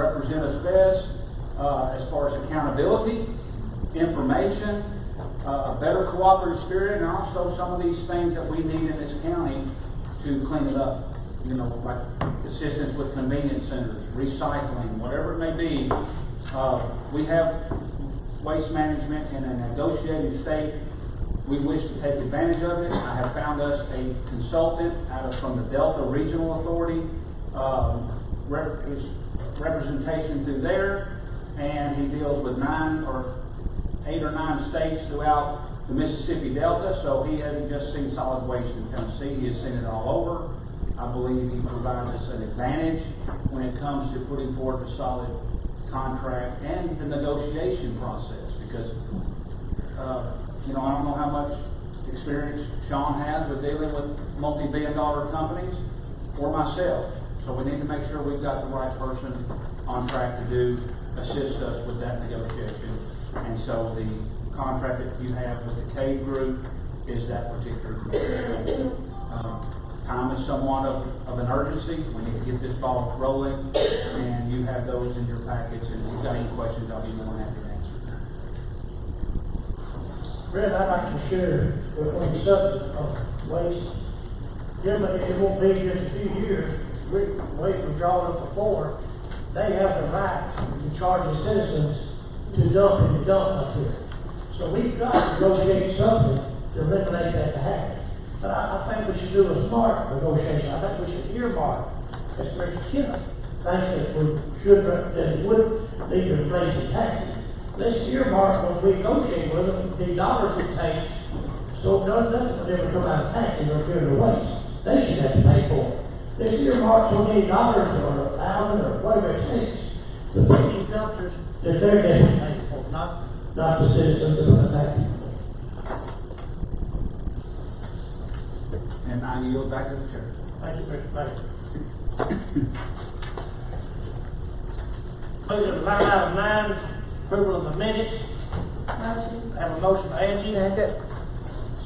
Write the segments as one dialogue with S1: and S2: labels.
S1: represent us best, uh, as far as accountability, information, uh, a better cooperative spirit, and also some of these things that we need in this county to clean it up. You know, like assistance with convenience centers, recycling, whatever it may be. Uh, we have waste management in a negotiating state. We wish to take advantage of it. I have found us a consultant out of, from the Delta Regional Authority, um, rep- his representation through there, and he deals with nine or eight or nine states throughout the Mississippi Delta, so he hasn't just seen solid waste in Tennessee, he has seen it all over. I believe he provides us an advantage when it comes to putting forth a solid contract and the negotiation process, because, uh, you know, I don't know how much experience Sean has with dealing with multi-billion dollar companies or myself, so we need to make sure we've got the right person on track to do, assist us with that negotiation. And so the contract that you have with the K group is that particular. contract. Um, Time is somewhat of, of an urgency, we need to get this ball rolling, and you have those in your packets, and if you've got any questions, I'll be more than happy to answer.
S2: Brent, I'd like to share with on the subject of waste. Gentlemen, it won't be just a few years, we, waste was drawn up before, they have the right to charge the citizens to dump and to dump up here. So we've got to negotiate something to eliminate that to happen. But I, I think we should do a smart negotiation, I think we should earmark, as Mr. Kenneth thinks that we should, that it would be to raise the taxes. Let's earmark when we negotiate with them, the dollars it takes, so none, nothing would ever come out of taxes or pure waste. They should have to pay for it. Let's earmark so many dollars or a thousand or whatever it takes to put these dumpsters that they're getting paid for, not, not the citizens of the tax.
S1: And I yield back to the chair.
S2: Thank you, Mr. Mayor. Moving to line item nine, approval of the minutes.
S3: Motion.
S2: Have a motion by Angie,
S3: Second.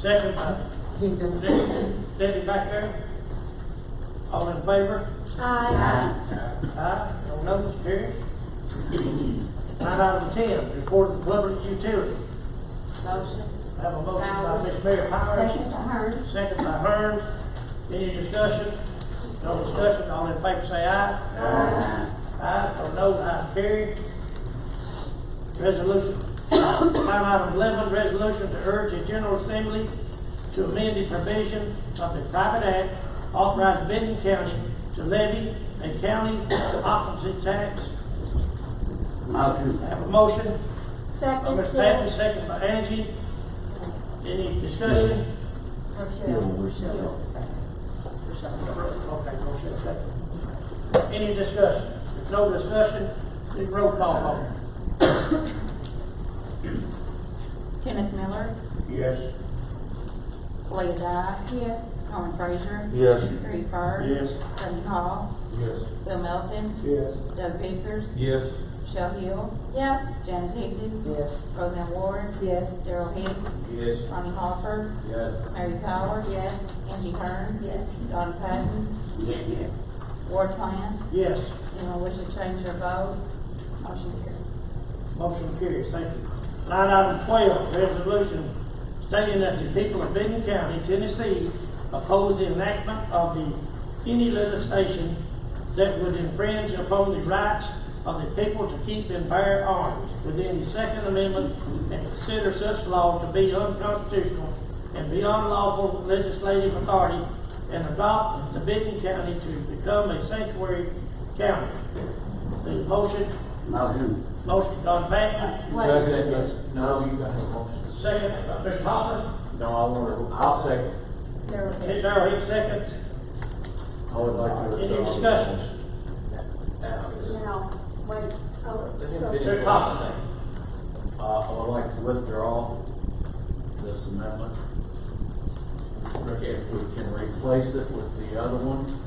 S2: second by
S3: Higgins.
S2: Debbie back there? All in favor?
S3: Aye.
S2: Aye, no notes, carried. Line item ten, report of public utility.
S3: Motion.
S2: Have a motion by Ms. Mary
S3: Second
S2: Powers,
S3: to Hearn.
S2: second by Hearns. Any discussion? No discussion, all in favor say aye. Aye. Aye, no notes, ayes, carried. Resolution, line item eleven, resolution to urge the General Assembly to amend the provision of the private act authorizing Benton County to levy a county opposite tax.
S1: Motion.
S2: Have a motion by
S3: Second.
S2: Mr. Patton, second by Angie. Any discussion?
S3: Rochelle. Rochelle is the second.
S2: Okay, motion second. Any discussion? If no discussion, then roll call vote.
S4: Kenneth Miller,
S2: Yes.
S4: Leah Dyke,
S3: Yes.
S4: Norman Frazier,
S5: Yes.
S4: Harry Fur.
S2: Yes.
S4: Sonny Hall,
S5: Yes.
S4: Bill Melton,
S5: Yes.
S4: Doug Bickers,
S5: Yes.
S4: Michelle Hill,
S3: Yes.
S4: Janet Higdon.
S5: Yes.
S4: Roseanne Ward.
S3: Yes.
S4: Daryl Hicks.
S5: Yes.
S4: Ronnie Hopper.
S5: Yes.
S4: Mary Powers. Yes. Angie Hearn.
S3: Yes.
S4: Don Patton. Ward Plan.
S2: Yes,
S4: Anyone wish to change their vote? Motion carries.
S2: motion carries, thank you. Line item twelve, resolution stating that the people of Benton County, Tennessee oppose the enactment of the any legislation that would infringe upon the rights of the people to keep and bear arms within the Second Amendment and consider such law to be unconstitutional and beyond lawful legislative authority and adopt the Benton County to become a sanctuary county. The motion
S1: Motion.
S2: Motion Don Patton,
S5: Second, yes. No, you got the motion.
S2: second by Mr. Hopper,
S5: No, I want to, I'll second.
S3: Daryl
S2: Hit
S3: Hicks.
S2: Darrell Hicks second,
S5: I would like to.
S2: any discussions?
S3: Now, wait.
S5: Let him
S3: Oh,
S5: finish.
S2: Mr. Hopper
S5: Uh, I would like to withdraw this amendment. If we can replace it with the other one,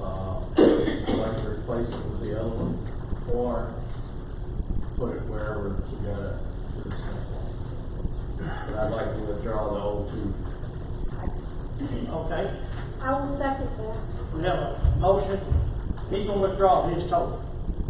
S5: uh, I'd like to replace it with the other one, or put it wherever you gotta do something. But I'd like to withdraw the old two.
S2: second. Okay,
S3: I will second that.
S2: we have a motion, he's gonna withdraw his total.